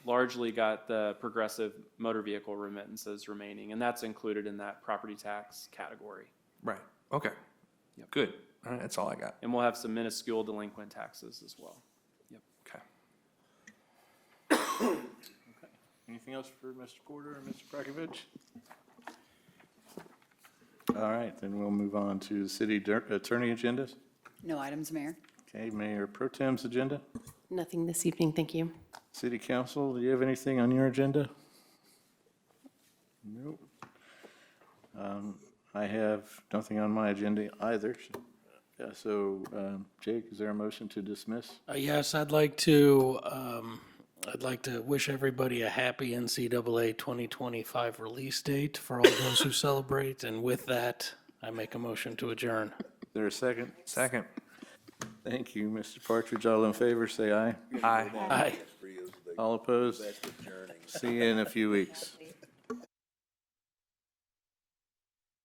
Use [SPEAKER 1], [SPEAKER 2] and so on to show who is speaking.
[SPEAKER 1] largely got the progressive motor vehicle remittances remaining, and that's included in that property tax category.
[SPEAKER 2] Right, okay. Good, all right, that's all I got,
[SPEAKER 1] And we'll have some minuscule delinquent taxes as well.
[SPEAKER 2] okay.
[SPEAKER 3] Anything else for Mr. Porter or Mr. Prakovich? All right, then we'll move on to the city dir- attorney agendas.
[SPEAKER 4] No items, Mayor.
[SPEAKER 3] Okay, Mayor Pro Tem's agenda.
[SPEAKER 5] Nothing this evening, thank you.
[SPEAKER 3] City Council, do you have anything on your agenda? Nope. Um, I have nothing on my agenda either. Uh, So um, Jake, is there a motion to dismiss?
[SPEAKER 6] Uh, Yes, I'd like to, um, I'd like to wish everybody a happy NCAA 2025 release date for all those who celebrate. And with that, I make a motion to adjourn.
[SPEAKER 3] Is there a second?
[SPEAKER 2] Second,
[SPEAKER 3] Thank you, Mr. Partridge. All in favor, say aye.
[SPEAKER 2] aye.
[SPEAKER 6] Aye.
[SPEAKER 3] All opposed? See you in a few weeks.